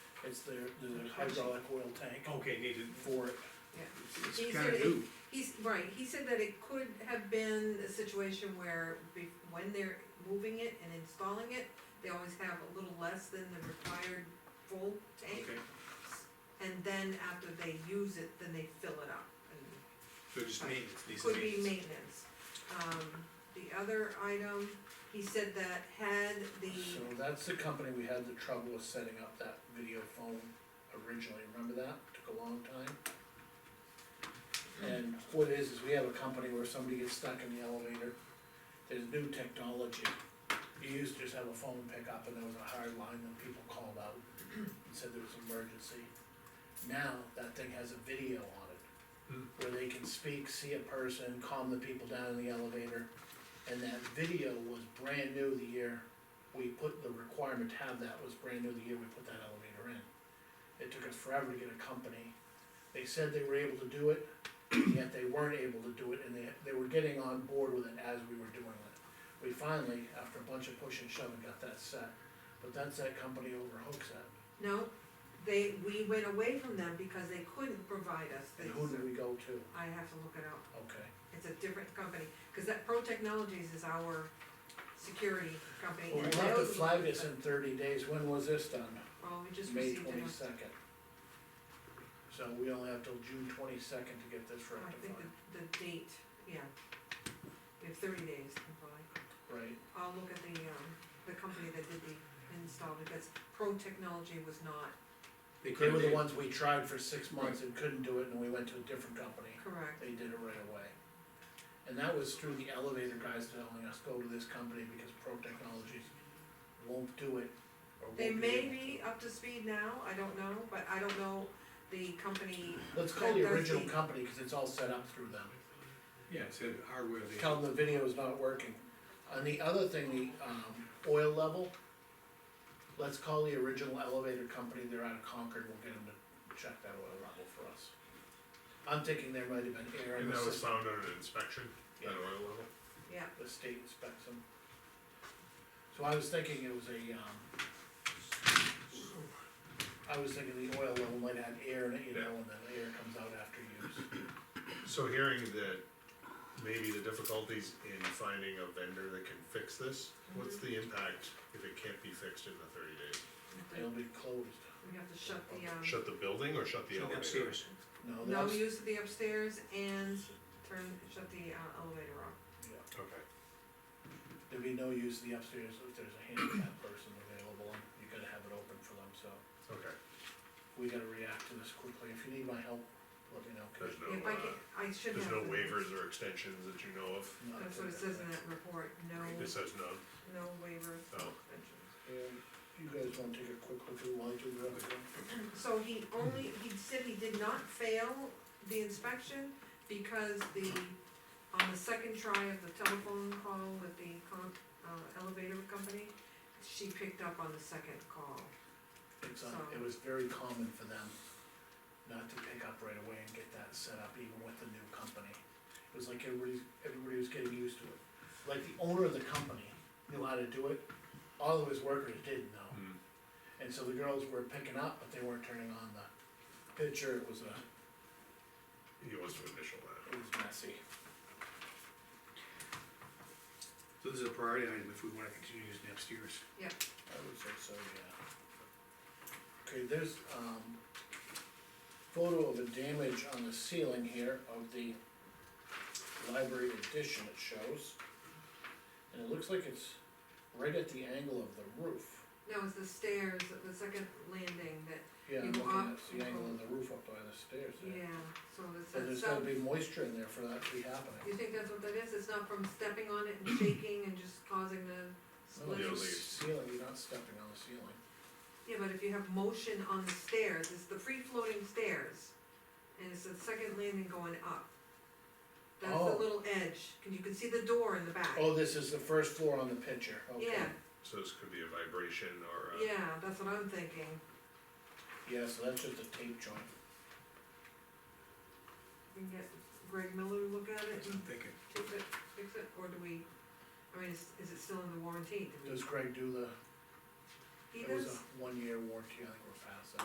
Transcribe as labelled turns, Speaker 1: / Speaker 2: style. Speaker 1: is there, there's a hydraulic oil tank
Speaker 2: Okay, needed.
Speaker 1: for it.
Speaker 2: It's
Speaker 3: He
Speaker 2: kinda
Speaker 3: said it-
Speaker 2: new.
Speaker 3: He's, right, he said that it could have been a situation where be, when they're moving it and installing it, they always have a little less than the required full tank.
Speaker 2: Okay,
Speaker 3: And then after they use it, then they fill it up and
Speaker 2: so just maintenance, needs
Speaker 3: could be maintenance.
Speaker 2: maintenance.
Speaker 3: Um, the other item, he said that had
Speaker 1: So
Speaker 3: the,
Speaker 1: that's the company we had the trouble with setting up that video phone originally, remember that? Took a long time. And what it is, is we have a company where somebody gets stuck in the elevator, there's new technology. You used to just have a phone pickup and there was a hard line and people called out and said there was an emergency. Now, that thing has a video on it.
Speaker 2: Hmm.
Speaker 1: Where they can speak, see a person, calm the people down in the elevator. And that video was brand new the year we put, the requirement to have that was brand new the year we put that elevator in. It took us forever to get a company, they said they were able to do it, yet they weren't able to do it, and they, they were getting on board with it as we were doing it. We finally, after a bunch of push and shove, got that set, but that's that company over Hooksett,
Speaker 3: no, they, we went away from them because they couldn't provide us
Speaker 1: and
Speaker 3: this.
Speaker 1: who do we go to?
Speaker 3: I have to look it up.
Speaker 1: Okay,
Speaker 3: It's a different company, cause that Pro Technologies is our security company.
Speaker 1: well,
Speaker 3: and
Speaker 1: we'll have to
Speaker 3: those-
Speaker 1: flag this in thirty days, when was this done?
Speaker 3: Oh, we just
Speaker 1: May
Speaker 3: received it.
Speaker 1: twenty-second. So we only have till June twenty-second to get this
Speaker 3: I think
Speaker 1: rectified,
Speaker 3: the, the date, yeah. We have thirty days, probably.
Speaker 1: right?
Speaker 3: I'll look at the, um, the company that did the install, because Pro Technology was not
Speaker 2: They
Speaker 1: They
Speaker 2: could,
Speaker 1: were the
Speaker 2: they,
Speaker 1: ones we tried for six months and couldn't do it, and we went to a different company,
Speaker 3: correct.
Speaker 1: they did it right away. And that was through the elevator guys telling us, go to this company because Pro Technologies won't do it. or won't
Speaker 3: They
Speaker 1: be
Speaker 3: may
Speaker 1: able to."
Speaker 3: be up to speed now, I don't know, but I don't know the company,
Speaker 1: Let's call the
Speaker 3: That does
Speaker 1: original
Speaker 3: the-
Speaker 1: company, cause it's all set up through them,
Speaker 2: yeah, it's a hardware, they,
Speaker 1: tell them the video is not working. And the other thing, the, um, oil level, let's call the original elevator company, they're out of Concord, we'll get them to check that oil level for us. I'm thinking there might have been air in
Speaker 4: And
Speaker 1: the
Speaker 4: that was
Speaker 1: system.
Speaker 4: found under inspection,
Speaker 1: Yeah.
Speaker 4: at oil level?
Speaker 3: yeah,
Speaker 1: the state inspects them. So I was thinking it was a, um, I was thinking the oil level might add air in it, you know, and then the air comes out after use.
Speaker 4: So hearing that maybe the difficulties in finding a vendor that can fix this, what's the impact if it can't be fixed in the thirty days?
Speaker 1: They'll be closed.
Speaker 3: we have to shut the, um,
Speaker 4: Shut the building or shut the
Speaker 2: so
Speaker 4: elevator?
Speaker 2: upstairs.
Speaker 1: No,
Speaker 3: no
Speaker 1: that's,
Speaker 3: use of the upstairs and turn, shut the uh, elevator off.
Speaker 1: yeah.
Speaker 4: Okay,
Speaker 1: there'd be no use of the upstairs if there's a handicap person available, and you gotta have it open for them, so.
Speaker 4: okay,
Speaker 1: We gotta react to this quickly, if you need my help, let me know. 'cause
Speaker 4: there's
Speaker 3: If
Speaker 4: no,
Speaker 3: I
Speaker 4: uh,
Speaker 3: can, I should have.
Speaker 4: there's no
Speaker 3: the-
Speaker 4: waivers or extensions that you know of,
Speaker 1: no, I
Speaker 3: That's what
Speaker 1: think
Speaker 3: it says in
Speaker 1: right.
Speaker 3: that report, no,
Speaker 4: it says none,
Speaker 3: no waivers, no
Speaker 4: Oh.
Speaker 3: extensions.
Speaker 1: And you guys wanna take a quick look at why do that?
Speaker 3: So he only, he said he did not fail the inspection because the, on the second try of the telephone call with the con, uh, elevator company, she picked up on the second call.
Speaker 1: It's, um, it was very common for them not to pick up right away and get that set up even with the new company. It was like everybody's, everybody was getting used to it. Like the owner of the company knew how to do it, all of his workers didn't know.
Speaker 4: Hmm.
Speaker 1: And so the girls were picking up, but they weren't turning on the picture, it was a,
Speaker 4: he wants to initial that.
Speaker 1: it was messy.
Speaker 2: So this is a priority item if we wanna continue using the upstairs.
Speaker 1: I would say so, yeah. Okay, there's, um, photo of a damage on the ceiling here of the library addition it shows. And it looks like it's right at the angle of the roof.
Speaker 3: No, it's the stairs, the second landing that,
Speaker 1: Yeah, I'm
Speaker 3: You
Speaker 1: looking
Speaker 3: walk-
Speaker 1: at it's the angle of the roof up by the stairs there.
Speaker 3: yeah, so it's,
Speaker 1: So
Speaker 3: that
Speaker 1: there's
Speaker 3: stuff,
Speaker 1: gotta be moisture in there for that to be happening.
Speaker 3: you think that's what that is? It's not from stepping on it and shaking and just causing the
Speaker 1: No,
Speaker 3: split?
Speaker 4: Yeah,
Speaker 1: it's
Speaker 4: leaves.
Speaker 1: the Ceiling, Oh, you're not stepping on the ceiling.
Speaker 3: Yeah, but if you have motion on the stairs, it's the free-floating stairs, and it's the second landing going up. That's
Speaker 1: Oh.
Speaker 3: the little edge, and you can see the door in the back.
Speaker 1: Oh, this is the first floor on the picture, okay.
Speaker 3: Yeah,
Speaker 4: So this could be a vibration or a.
Speaker 3: yeah, that's what I'm thinking.
Speaker 1: Yeah, so that's just a tape joint.
Speaker 3: We can get Greg Miller to look at it
Speaker 2: That's what
Speaker 3: and
Speaker 2: I'm thinking.
Speaker 3: fix it, fix it, or do we, I mean, is, is it still in the warranty? Do we-
Speaker 1: Does Greg do the
Speaker 3: He
Speaker 1: It was
Speaker 3: does?
Speaker 1: a one-year warranty, I think we're past that.